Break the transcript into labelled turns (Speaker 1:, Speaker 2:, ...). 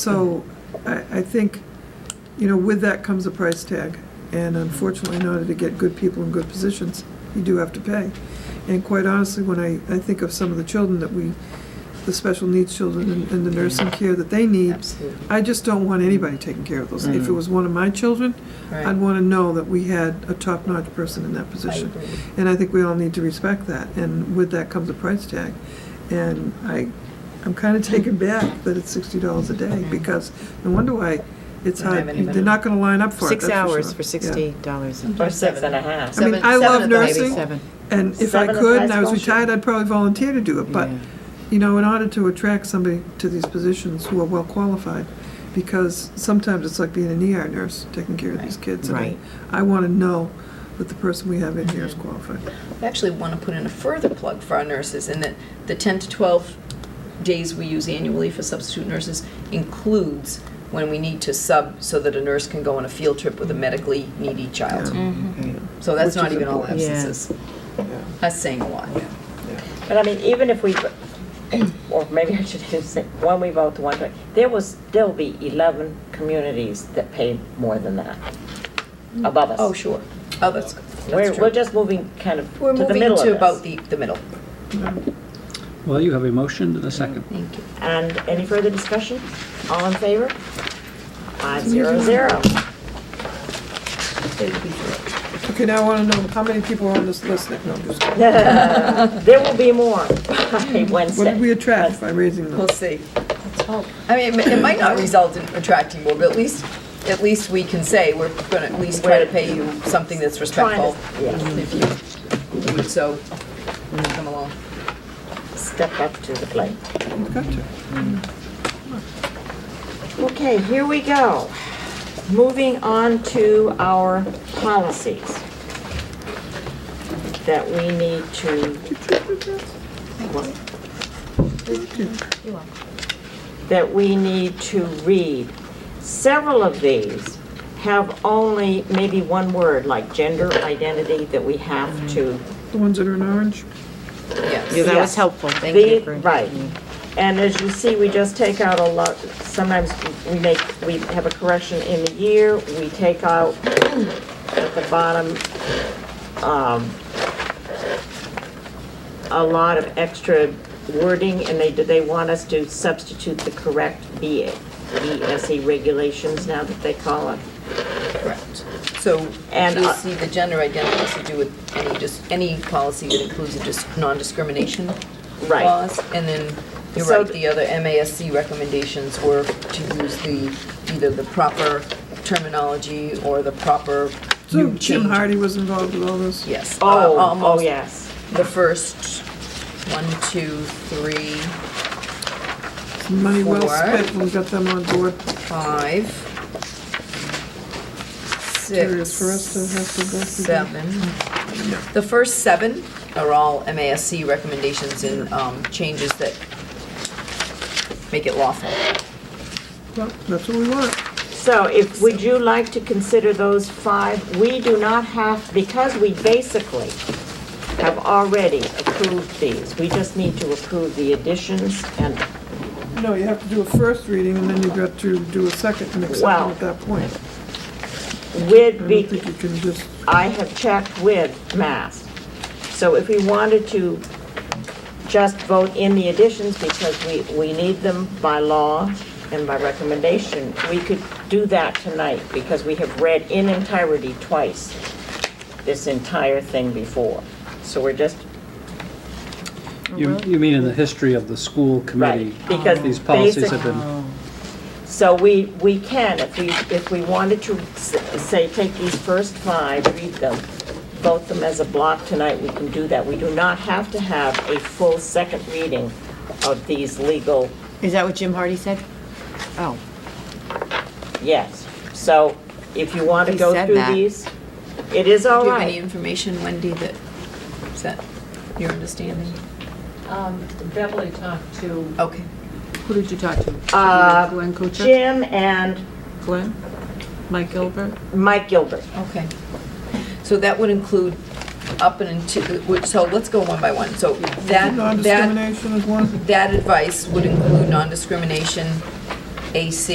Speaker 1: So I, I think, you know, with that comes a price tag. And unfortunately, in order to get good people in good positions, you do have to pay. And quite honestly, when I, I think of some of the children that we, the special needs children and- and the nursing care that they need,
Speaker 2: Absolutely,
Speaker 1: I just don't want anybody taking care of those. If it was one of my children, I'd
Speaker 2: right.
Speaker 1: want to know that we had a top-notch person in that
Speaker 2: I
Speaker 1: position.
Speaker 2: agree.
Speaker 1: And I think we all need to respect that, and with that comes a price tag. And I, I'm kind of taken back that it's sixty dollars a day, because no wonder why it's
Speaker 2: Don't have
Speaker 1: hard,
Speaker 2: anybody.
Speaker 1: they're not gonna line up for it,
Speaker 3: Six
Speaker 1: that's
Speaker 3: hours
Speaker 1: sure.
Speaker 3: for
Speaker 1: Yeah.
Speaker 3: sixty dollars.
Speaker 2: Or seven and a half.
Speaker 1: I mean,
Speaker 2: Seven-
Speaker 1: I
Speaker 2: seven
Speaker 1: love
Speaker 2: at the high
Speaker 1: nursing.
Speaker 2: school.
Speaker 3: Seven.
Speaker 1: And if I
Speaker 2: Seven at
Speaker 1: could,
Speaker 2: high
Speaker 1: and I was
Speaker 2: school, sure.
Speaker 1: retired, I'd probably volunteer to do it, but,
Speaker 3: Yeah.
Speaker 1: you know, in order to attract somebody to these positions who are well-qualified, because sometimes it's like being an ER nurse, taking care of these kids. and I-
Speaker 3: Right.
Speaker 1: I wanna know that the person we have in here is qualified.
Speaker 2: I actually want to put in a further plug for our nurses in that the 10 to 12 days we use annually for substitute nurses includes when we need to sub so that a nurse can go on a field trip with a medically needy child.
Speaker 3: Okay.
Speaker 2: So that's
Speaker 1: Which
Speaker 2: not
Speaker 1: is
Speaker 2: even all
Speaker 3: important. Yeah.
Speaker 2: absences. That's saying a lot.
Speaker 4: But I mean, even if we, or maybe I should just say, one we vote to one, but there will still be 11 communities that pay more than that above us.
Speaker 2: Oh, sure. Oh, that's, that's
Speaker 4: We're, we're
Speaker 2: true.
Speaker 4: just moving kind of
Speaker 2: We're
Speaker 4: to the
Speaker 2: moving
Speaker 4: middle of
Speaker 2: to about
Speaker 4: this.
Speaker 2: the, the middle.
Speaker 5: Well, you have a motion and a second.
Speaker 2: Thank you.
Speaker 4: And any further discussion? All in favor? Five zero zero.
Speaker 1: Okay, now I wanna know how many people are on this list that, no, I'm just kidding.
Speaker 4: There will be more by
Speaker 1: What did we
Speaker 4: Wednesday.
Speaker 1: attract by raising them?
Speaker 2: We'll see. I mean, it it might not result in attracting more, but at least, at least we can say, we're going to at least try to pay you something that's respectful.
Speaker 4: Trying to-
Speaker 2: If you, would so, come along.
Speaker 4: Step up to the plate.
Speaker 1: Gotcha.
Speaker 4: Okay, here we go. Moving on to our policies that we need to. That we need to read. Several of these have only maybe one word, like gender identity, that we have to
Speaker 1: The ones that are in orange?
Speaker 3: Yeah,
Speaker 2: Yes.
Speaker 3: that was
Speaker 4: Yes.
Speaker 3: helpful, thank
Speaker 4: the-
Speaker 3: you for.
Speaker 4: Right. And as you see, we just take out a lot, sometimes we make, we have a correction in the year, we take out at the bottom, um, a lot of extra wording, and they, they want us to substitute the correct BA, BSE E regulations now that they call it.
Speaker 2: Correct. So,
Speaker 4: And
Speaker 2: you
Speaker 4: I-
Speaker 2: see, the gender identity has to do with any, just, any policy that includes a dis non-discrimination
Speaker 4: Right.
Speaker 2: clause. And then, you're
Speaker 4: So
Speaker 2: right,
Speaker 4: th-
Speaker 2: the other MASC recommendations were to use the, either the proper terminology or the proper
Speaker 1: So
Speaker 2: new
Speaker 1: Jim
Speaker 2: change.
Speaker 1: Hardy was involved with all this?
Speaker 2: Yes. uh,
Speaker 4: Oh, oh,
Speaker 2: almost
Speaker 4: yes.
Speaker 2: The first, one, two, three,
Speaker 1: Money well
Speaker 2: Four.
Speaker 1: spent when we got them on board.
Speaker 2: five,
Speaker 1: Curious for us to
Speaker 2: six,
Speaker 1: have to go through. them.
Speaker 2: seven. The first seven are all MASC recommendations and um, changes that make it lawful.
Speaker 1: Well, That's what we want.
Speaker 4: So if, would you like to consider those five? We do not have, because we basically have already approved these. We just need to approve the additions and,
Speaker 1: No, you have to do a first reading and then you've got to do a second and accept
Speaker 4: Wow.
Speaker 1: them at that point. I
Speaker 4: with,
Speaker 1: don't
Speaker 4: be-
Speaker 1: think you can just,
Speaker 4: I have checked with Mass. So if we wanted to just vote in the additions because we, we need them by law and by recommendation, we could do that tonight because we have read in entirety twice this entire thing before. So we're just,
Speaker 5: You, you mean in the history of the school committee?
Speaker 4: Mm-hmm. Right, because
Speaker 5: These policies have
Speaker 4: basic-
Speaker 5: been,
Speaker 4: so we, we can, if we, if we wanted to s- say, take these first five, read them, vote them as a block tonight, we can do that. We do not have to have a full second reading of these legal
Speaker 3: Is that what Jim Hardy said? Oh,
Speaker 4: Yes, so if you want to
Speaker 3: He
Speaker 4: go
Speaker 3: said
Speaker 4: through
Speaker 3: that.
Speaker 4: these, it is all
Speaker 2: Do you have any
Speaker 4: right.
Speaker 2: information, Wendy, that, is that your understanding?
Speaker 6: Um, Beverly talked to,
Speaker 2: Okay.
Speaker 6: who did you talk to?
Speaker 4: Uh,
Speaker 6: Glenn Kuchar?
Speaker 4: Jim and
Speaker 6: Glenn? Mike Gilbert?
Speaker 4: Mike Gilbert.
Speaker 2: Okay. So that would include up and into, which- so let's go one by one. So that, that
Speaker 1: non-discrimination is one.
Speaker 2: That advice would include non-discrimination, AC